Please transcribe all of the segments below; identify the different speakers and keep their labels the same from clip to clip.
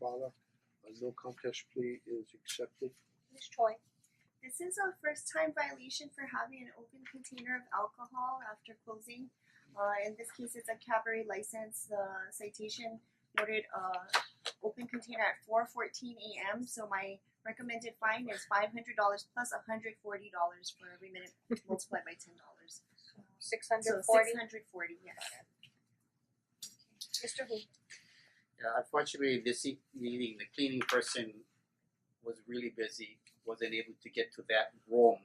Speaker 1: Bala. A no contest plea is accepted.
Speaker 2: Ms. Choi. This is a first time violation for having an open container of alcohol after closing. Uh in this case, it's a cabaret license, the citation noted uh open container at four fourteen AM. So my recommended fine is five hundred dollars plus a hundred forty dollars for every minute multiplied by ten dollars.
Speaker 3: Six
Speaker 2: So
Speaker 3: hundred forty,
Speaker 2: six hundred forty, yes.
Speaker 3: Mr. Hu,
Speaker 4: Yeah, unfortunately, this e- meeting, the cleaning person was really busy, wasn't able to get to that room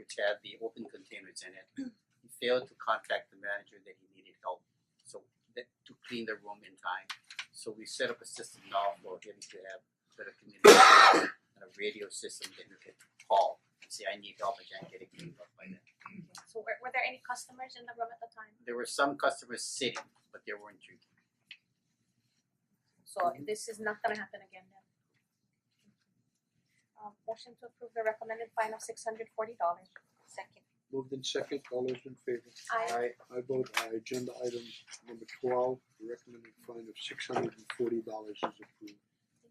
Speaker 4: which had the open containers in it. He failed to contact the manager that he needed help, so that to clean the room in time. So we set up a system now for him to have better communication and a radio system that he could call and say, I need help, I can't get it cleaned up by then.
Speaker 3: so were were there any customers in the room at the time?
Speaker 4: There were some customers sitting, but they weren't drinking.
Speaker 3: So this is not gonna happen again then. Um motion to approve the recommended fine of six hundred forty dollars. Second.
Speaker 1: Moved in second, all those in favor?
Speaker 3: Aye.
Speaker 1: I vote aye, agenda item number twelve, the recommended fine of six hundred and forty dollars is approved.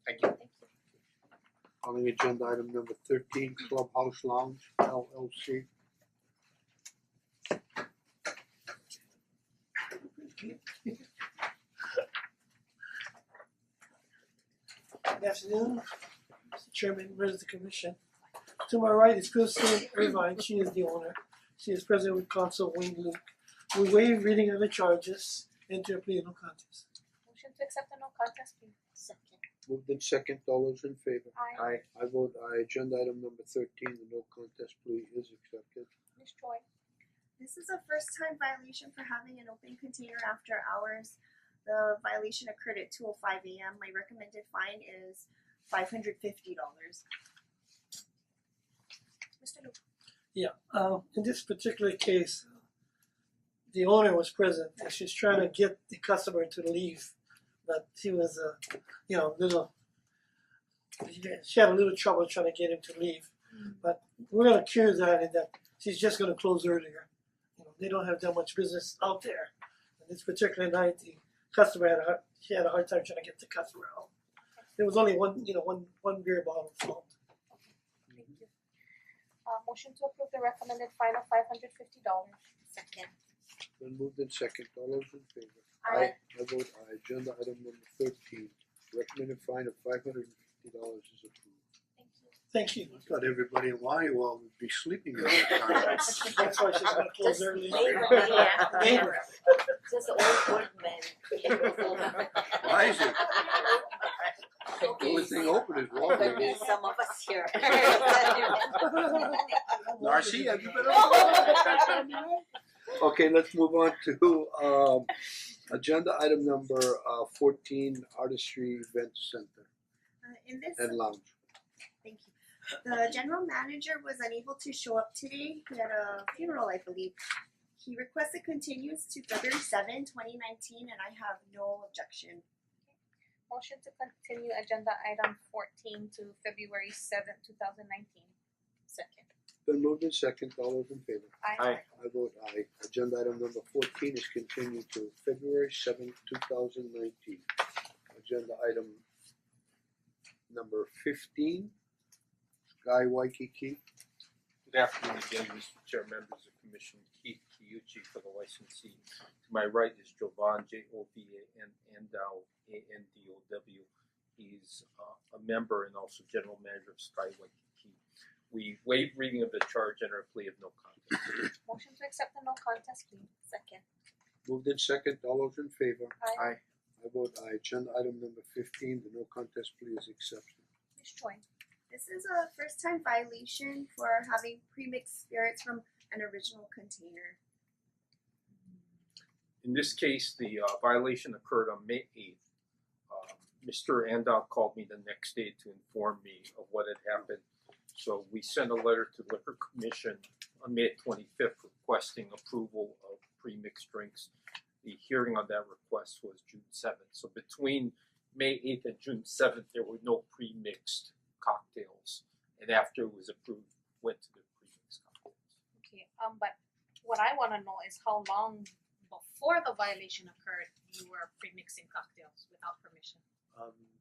Speaker 4: Thank you.
Speaker 3: Thank you.
Speaker 1: Calling agenda item number thirteen, Clubhouse Lounge LLC.
Speaker 5: Good afternoon, Mr. Chairman, members of the commission. To my right is Kristen Irvine, she is the owner. She is president with counsel Wayne Luke. We waive reading of the charges, enter a plea of no contest.
Speaker 3: Motion to accept the no contest plea. Second.
Speaker 1: Moved in second, all those in favor?
Speaker 3: Aye.
Speaker 4: Aye.
Speaker 1: I vote aye, agenda item number thirteen, the no contest plea is accepted.
Speaker 3: Ms. Choi,
Speaker 2: This is a first time violation for having an open container after hours. The violation occurred at two oh five AM. My recommended fine is five hundred fifty dollars.
Speaker 3: Mr. Luke,
Speaker 5: Yeah, um in this particular case, the owner was present and she's trying to get the customer to leave, but he was uh you know, little she had a little trouble trying to get him to leave. But we're gonna cure that in that she's just gonna close earlier. You know, they don't have that much business out there. And this particular night the customer had a hard, she had a hard time trying to get the customer out. There was only one you know, one one beer bottle sold.
Speaker 3: thank you. Uh motion to approve the recommended fine of five hundred fifty dollars. Second.
Speaker 1: Then moved in second, all those in favor?
Speaker 3: Aye.
Speaker 1: I vote aye, agenda item number thirteen, recommended fine of five hundred and fifty dollars is approved.
Speaker 3: Thank you.
Speaker 5: Thank you.
Speaker 1: I thought everybody in Waiwa would be sleeping at that time.
Speaker 5: That's why she's gonna close
Speaker 6: Just
Speaker 5: early.
Speaker 6: labor,
Speaker 3: yeah.
Speaker 5: Labor.
Speaker 6: Just old woodman.
Speaker 1: Why is it? The only
Speaker 6: There
Speaker 1: thing open is
Speaker 6: could
Speaker 1: Walgreens.
Speaker 6: be some of us here.
Speaker 1: Narcy, have you been
Speaker 3: over
Speaker 1: Okay, let's move on to um agenda item number uh fourteen, Artistry Event Center
Speaker 2: Uh in this
Speaker 1: and Lounge.
Speaker 2: Thank you. The general manager was unable to show up today. He had a funeral, I believe. He requested continuance to February 7, 2019, and I have no objection.
Speaker 3: Motion to continue agenda item fourteen to February seventh, two thousand nineteen. Second.
Speaker 1: Then moved in second, all those in favor?
Speaker 3: Aye.
Speaker 1: I vote aye. Agenda item number fourteen is continued to February seventh, two thousand nineteen. Agenda item number fifteen, Guy Waikiki.
Speaker 7: Good afternoon again, Mr. Chair, members of Commission, Keith Kiyuchi for the licensee. To my right is Jovan, J O V A N Andow, A N D O W. He's uh, a member and also general manager of Sky Waikiki. We waive reading of the charge and our plea of no contest.
Speaker 3: Motion to accept the no contest plea. Second.
Speaker 1: Moved in second, all those in favor?
Speaker 3: Aye.
Speaker 1: I vote aye. Agenda item number fifteen, the no contest plea is accepted.
Speaker 3: Ms. Choi,
Speaker 2: This is a first time violation for having pre-mixed spirits from an original container.
Speaker 7: In this case, the uh, violation occurred on May eighth. Um, Mr. Andow called me the next day to inform me of what had happened. So we sent a letter to Liquor Commission on May twenty-fifth requesting approval of pre-mixed drinks. The hearing on that request was June seventh. So between May eighth and June seventh, there were no pre-mixed cocktails. And after it was approved, went to the pre-mixed cocktails.
Speaker 3: okay, um but what I wanna know is how long before the violation occurred, you were pre-mixing cocktails without permission?
Speaker 7: Um